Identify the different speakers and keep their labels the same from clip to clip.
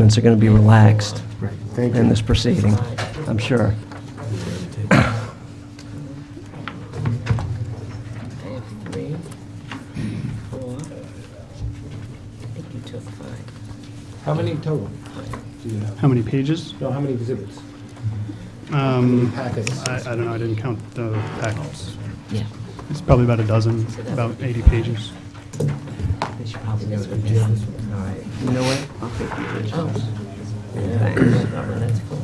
Speaker 1: Amendments are going to be relaxed
Speaker 2: Right, thank
Speaker 1: in
Speaker 2: you.
Speaker 1: this proceeding, I'm sure.
Speaker 3: I have three, four. I think you took five.
Speaker 2: How many total do you have?
Speaker 4: How many pages?
Speaker 2: No, how many exhibits?
Speaker 4: Um,
Speaker 2: Packets?
Speaker 4: I, I don't know, I didn't count the packets.
Speaker 3: Yeah.
Speaker 4: It's probably about a dozen, about 80 pages.
Speaker 1: They should probably
Speaker 3: This
Speaker 1: do
Speaker 3: one,
Speaker 1: it.
Speaker 3: this one.
Speaker 1: All right, you know what? I'll take the
Speaker 3: Oh.
Speaker 1: originals.
Speaker 3: Yeah, well, that's four.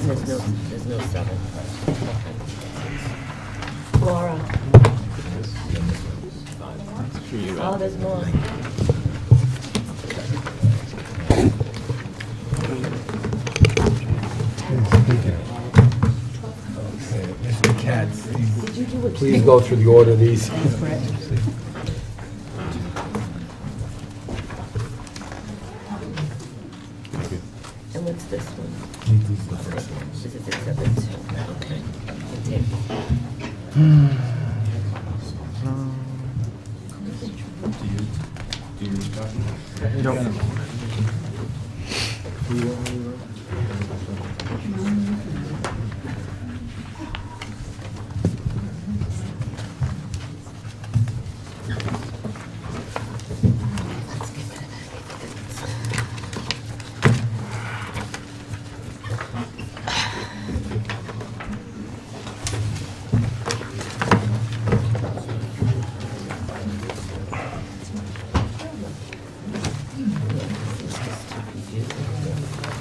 Speaker 3: There's no, there's no seven. Laura. Oh, there's more.
Speaker 2: Please go through the order of these.
Speaker 3: And what's this one? This is the seven, two. okay. The table.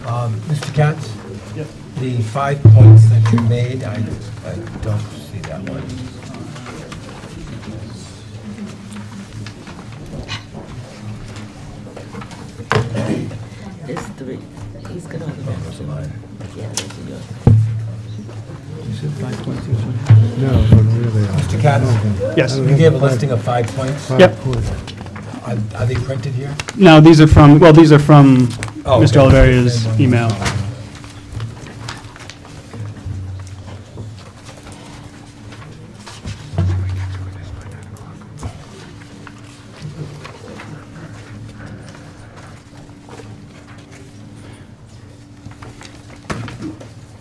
Speaker 5: Um, Mr. Katz? The five points that you made, I, I don't see that one.
Speaker 3: There's three. He's gonna
Speaker 5: Oh,
Speaker 3: have
Speaker 5: those are mine.
Speaker 3: to, yeah, those are yours.
Speaker 5: Mr. Katz?
Speaker 4: Yes.
Speaker 5: You gave a listing of five points. Are,
Speaker 4: Yep.
Speaker 5: are they printed here?
Speaker 4: No, these are from, well, these are from
Speaker 5: Oh,
Speaker 4: Mr.
Speaker 5: okay.
Speaker 4: Oliveri's email.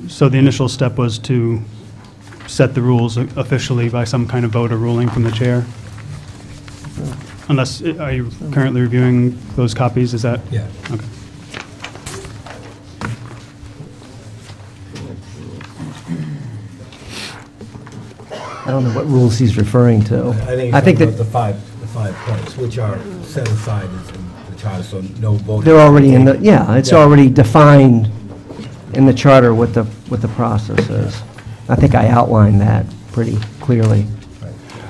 Speaker 4: So the initial step was to set the rules officially by some kind of vote or ruling from the chair? Unless, are you currently reviewing those copies, is that?
Speaker 5: Yeah.
Speaker 4: Okay.
Speaker 1: I don't know what rules he's referring to.
Speaker 5: I think it's
Speaker 1: that
Speaker 5: the five, the five points, which are set aside as in the charter, so no voting.
Speaker 1: they're already in the, yeah, it's
Speaker 5: Yeah.
Speaker 1: already defined in the charter what the, what the process is. I think I outlined that pretty clearly.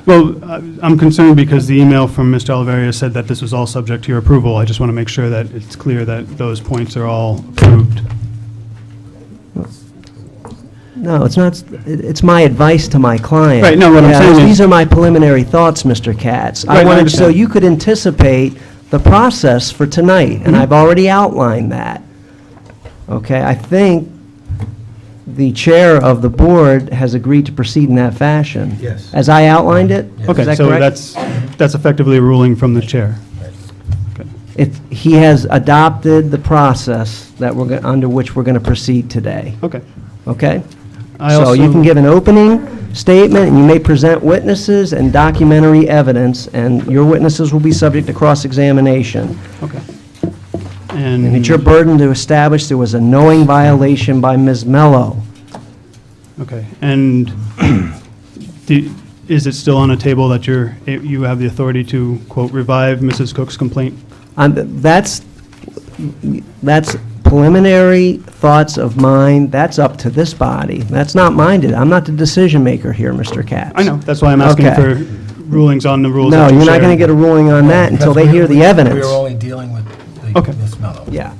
Speaker 4: Well, I- I'm concerned because the email from Mr. Oliveria said that this was all subject to your approval. I just want to make sure that it's clear that those points are all approved.
Speaker 1: No, it's not, it- it's my advice to my client.
Speaker 4: Right, no, what I'm
Speaker 1: Yeah,
Speaker 4: saying is-
Speaker 1: These are my preliminary thoughts, Mr. Katz.
Speaker 4: Right,
Speaker 1: I
Speaker 4: I
Speaker 1: wanted, so
Speaker 4: understand.
Speaker 1: you could anticipate the process for tonight,
Speaker 4: Mm-hmm.
Speaker 1: and I've already outlined that. Okay, I think the chair of the board has agreed to proceed in that fashion.
Speaker 5: Yes.
Speaker 1: As I outlined it? Is
Speaker 4: Okay,
Speaker 1: that
Speaker 4: so
Speaker 1: correct?
Speaker 4: that's, that's effectively a ruling from the chair. Okay.
Speaker 1: If he has adopted the process that we're, go- under which we're going to proceed today.
Speaker 4: Okay.
Speaker 1: Okay?
Speaker 4: I
Speaker 1: So you
Speaker 4: also-
Speaker 1: can give an opening statement, and you may present witnesses and documentary evidence, and your witnesses will be subject to cross-examination.
Speaker 4: Okay.
Speaker 1: And it's your
Speaker 4: And,
Speaker 1: burden to establish there was a knowing violation by Ms. Mello.
Speaker 4: okay, and do- is it still on a table that you're, you have the authority to, quote, revive Mrs. Cook's complaint?
Speaker 1: Um, That's, that's preliminary thoughts of mine, that's up to this body. That's not mine, to- I'm not the decision-maker here, Mr. Katz.
Speaker 4: I know, that's why I'm asking
Speaker 1: Okay.
Speaker 4: for rulings on the rules.
Speaker 1: No,
Speaker 4: that the
Speaker 1: you're not
Speaker 4: chair-
Speaker 1: going to get a ruling on that until they
Speaker 5: Because
Speaker 1: hear
Speaker 5: we-
Speaker 1: the
Speaker 5: we-
Speaker 1: evidence.
Speaker 5: We are only dealing with the
Speaker 4: Okay.
Speaker 5: Ms. Mello.
Speaker 1: Yeah,